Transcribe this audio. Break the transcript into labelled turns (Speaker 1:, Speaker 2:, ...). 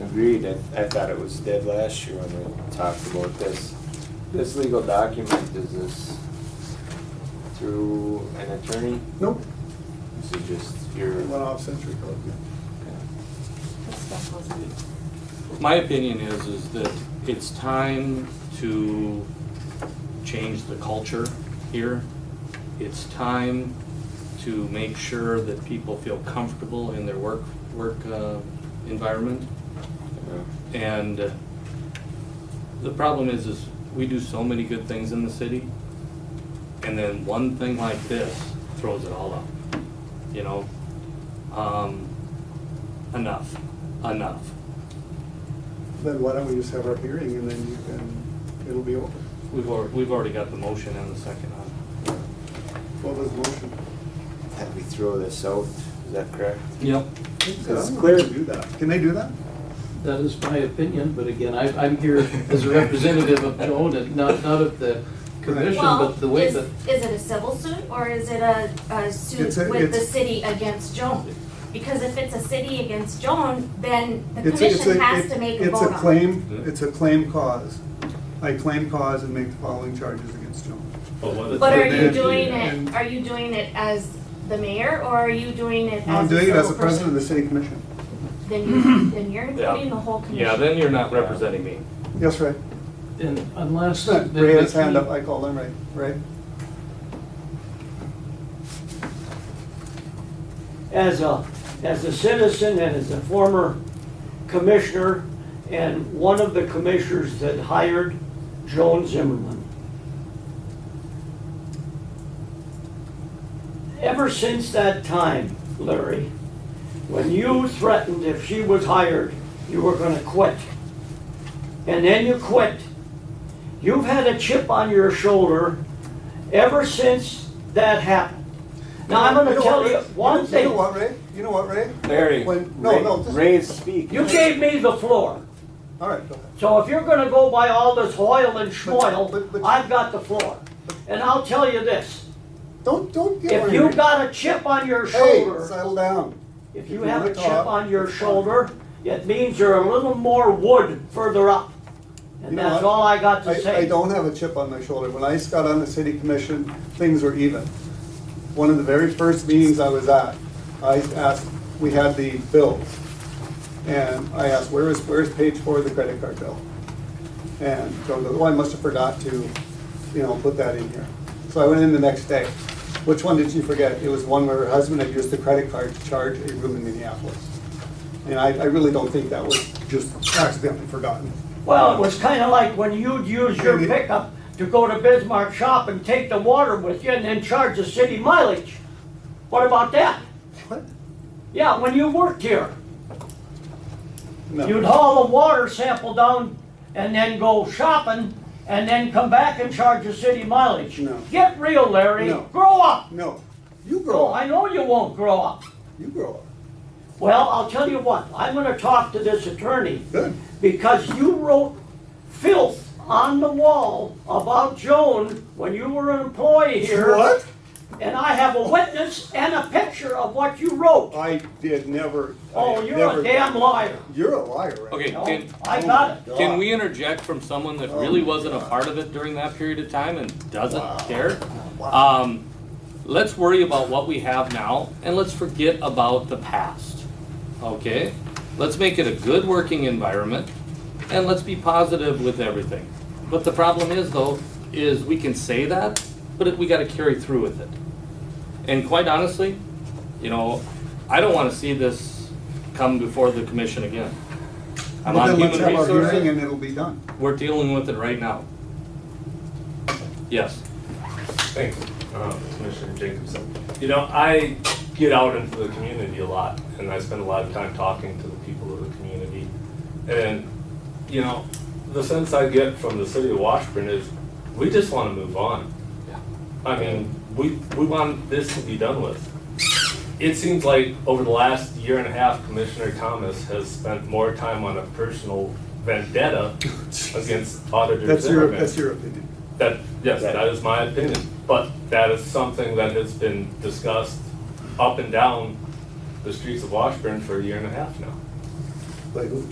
Speaker 1: Agreed, I, I thought it was dead last year when we talked about this. This legal document, is this through an attorney?
Speaker 2: Nope,
Speaker 1: This is just
Speaker 2: it
Speaker 1: your,
Speaker 2: went off century code.
Speaker 3: This stuff wasn't,
Speaker 4: My opinion is, is that it's time to change the culture here. It's time to make sure that people feel comfortable in their work, work uh, environment.
Speaker 1: uh,
Speaker 4: And uh, the problem is, is we do so many good things in the city, and then one thing like this throws it all up, you know? Um, Enough, enough.
Speaker 2: Then why don't we just have our hearing and then you can, it'll be over.
Speaker 4: We've already, we've already got the motion and the second on.
Speaker 2: What was the motion?
Speaker 1: that we throw this out, is that correct?
Speaker 4: Yep.
Speaker 1: It's
Speaker 2: I'm not
Speaker 1: clear.
Speaker 2: gonna Do that. Can they do that?
Speaker 5: That is my opinion, but again, I, I'm here as a representative of Joan and not, not of the commission,
Speaker 3: well,
Speaker 5: but the way
Speaker 3: is,
Speaker 5: that.
Speaker 3: is it a civil suit or is it a, a suit
Speaker 2: It's a-
Speaker 3: with the
Speaker 2: it's-
Speaker 3: city against Joan? Because if it's a city against Joan, then the
Speaker 2: It's a- it's
Speaker 3: commission
Speaker 2: a-
Speaker 3: has
Speaker 2: it-
Speaker 3: to make a vote on it.
Speaker 2: It's a claim, it's a claim cause. I claim cause and make the following charges against Joan.
Speaker 3: But are you
Speaker 2: And-
Speaker 3: doing
Speaker 2: and-
Speaker 3: it, are you doing it as the mayor or are you doing it as a
Speaker 2: I'm doing it as
Speaker 3: civil
Speaker 2: the president of the
Speaker 3: person?
Speaker 2: city commission.
Speaker 3: Then you, then you're
Speaker 4: Yeah.
Speaker 3: including the whole commission.
Speaker 4: Yeah, then you're not representing me.
Speaker 2: Yes, Ray.
Speaker 5: And unless. the- the
Speaker 2: Ray had his
Speaker 5: key-
Speaker 2: hand up, I called him, Ray. Ray?
Speaker 6: as a, as a citizen and as a former commissioner and one of the commissioners that hired Joan Zimmerman. Ever since that time, Larry, when you threatened if she was hired, you were gonna quit. And then you quit. You've had a chip on your shoulder ever since that happened. Now, I'm gonna
Speaker 2: know what,
Speaker 6: tell
Speaker 2: Ray?
Speaker 6: you one
Speaker 2: You
Speaker 6: thing.
Speaker 2: know what, Ray? You know what, Ray?
Speaker 1: Larry,
Speaker 2: When- no, no,
Speaker 1: Ray,
Speaker 2: just-
Speaker 1: Ray is speaking.
Speaker 6: You gave me the floor.
Speaker 2: All right, go ahead.
Speaker 6: So if you're gonna go by all this hoil and
Speaker 2: But- but-
Speaker 6: schmoil, I've got the floor. And I'll tell you this,
Speaker 2: Don't, don't get
Speaker 6: if
Speaker 2: worried.
Speaker 6: you got a chip on your
Speaker 2: Hey,
Speaker 6: shoulder,
Speaker 2: settle down.
Speaker 6: if you
Speaker 2: if you
Speaker 6: have
Speaker 2: wanna
Speaker 6: a chip
Speaker 2: talk,
Speaker 6: on your
Speaker 2: it's fine.
Speaker 6: shoulder, it means you're a little more wood further up.
Speaker 2: You
Speaker 6: And
Speaker 2: know
Speaker 6: that's
Speaker 2: what?
Speaker 6: all I got to
Speaker 2: I, I
Speaker 6: say.
Speaker 2: don't have a chip on my shoulder. When I got on the city commission, things were even. One of the very first meetings I was at, I asked, we had the bills. And I asked, where is, where's page four of the credit card bill? And Joan goes, oh, I must have forgot to, you know, put that in here. So I went in the next day. Which one did she forget? It was one where her husband had used the credit card to charge a room in Minneapolis. And I, I really don't think that was just accidentally forgotten.
Speaker 6: Well, it was kinda like when you'd use your
Speaker 2: Maybe-
Speaker 6: pickup to go to Bismarck shop and take the water with you and then charge the city mileage. What about that?
Speaker 2: What?
Speaker 6: Yeah, when you worked here.
Speaker 2: No.
Speaker 6: You'd haul a water sample down and then go shopping and then come back and charge the city mileage.
Speaker 2: No.
Speaker 6: Get real, Larry.
Speaker 2: No.
Speaker 6: Grow up.
Speaker 2: No, you grow
Speaker 6: No,
Speaker 2: up.
Speaker 6: Oh, I know you won't grow up.
Speaker 2: You grow up.
Speaker 6: Well, I'll tell you what, I'm gonna talk to this attorney
Speaker 2: Good.
Speaker 6: because you wrote filth on the wall about Joan when you were an employee here.
Speaker 2: What?
Speaker 6: And I have a witness and a picture of what you wrote.
Speaker 2: I did never. I
Speaker 6: Oh,
Speaker 2: have
Speaker 6: you're
Speaker 2: never-
Speaker 6: a damn liar.
Speaker 2: You're a liar, right?
Speaker 4: Okay,
Speaker 6: No,
Speaker 4: can,
Speaker 6: I got it.
Speaker 4: can we interject from someone that really wasn't a part of it during that period of time and doesn't care? Um, let's worry about what we have now and let's forget about the past, okay? Let's make it a good working environment and let's be positive with everything. But the problem is though, is we can say that, but it- we gotta carry through with it. And quite honestly, you know, I don't wanna see this come before the commission again. I'm
Speaker 2: Well,
Speaker 4: on
Speaker 2: then let's
Speaker 4: human
Speaker 2: have our
Speaker 4: resources.
Speaker 2: hearing and it'll be done.
Speaker 4: We're dealing with it right now. Yes.
Speaker 7: Thanks,
Speaker 2: Uh,
Speaker 7: um, Commissioner Jacobson. You know, I get out into the community a lot, and I spend a lot of time talking to the people of the community. And, you know, the sense I get from the city of Washburn is, we just want to move on. I mean, we, we want this to be done with. It seems like over the last year and a half, Commissioner Thomas has spent more time on a personal vendetta against Auditor
Speaker 2: Oh, That's your,
Speaker 7: Zimmerman.
Speaker 2: that's your opinion.
Speaker 7: That, yes, that is my opinion, but that is something that has been discussed up and down the streets of Washburn for a year and a half now.
Speaker 2: Like,